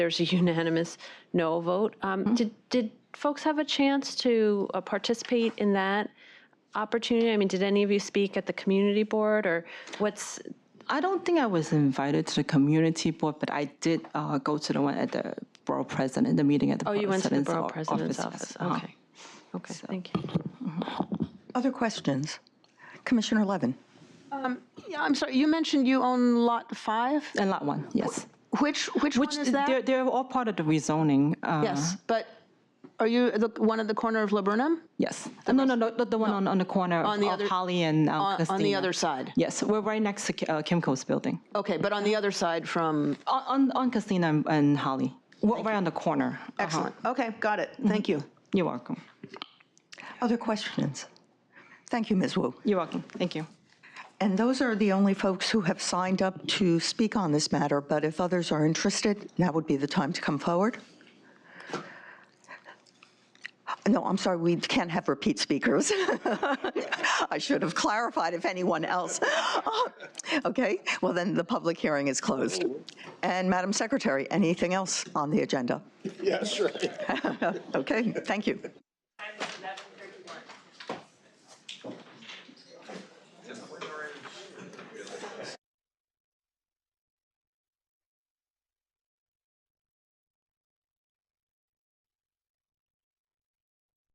There's a unanimous no vote. Um, Did, did folks have a chance to uh, participate in that opportunity? I mean, did any of you speak at the community board or what's, I don't think I was invited to the community board, but I did uh, go to the one at the borough president, the meeting at the oh, you went to the borough o- president's yes. office? Uh-huh. Okay. Okay, thank you. Other questions? Commissioner Levin? Um, Yeah, I'm sorry, you mentioned you own Lot 5? Uh-huh. And lot one, yes. Which, which one Which is they're, that? they're all part of the rezoning. uh, Yes, but are you the one at the corner of Laburnum? Yes. Uh, No, no, no, the the one on, on the corner On the of other- Holly and um, On on the Christina. other Oh. side? Yes, we're right next to Ki- uh, Kimco's building, Okay, but on the other side from, On- on, on Christina and- and Holly. We're right on the corner. Uh-huh. excellent, okay, got it, thank you. You're welcome. Mm-hmm. Other questions? Thank you, Ms. Wu. You're welcome. Thank you. And those are the only folks who have signed up to speak on this matter, but if others are interested, now would be the time to come forward. No, I'm sorry, we can't have repeat speakers. I should have clarified if anyone else. Okay, well then, the public hearing is closed. And Madam Secretary, anything else on the agenda? Yes, right. Okay, thank you.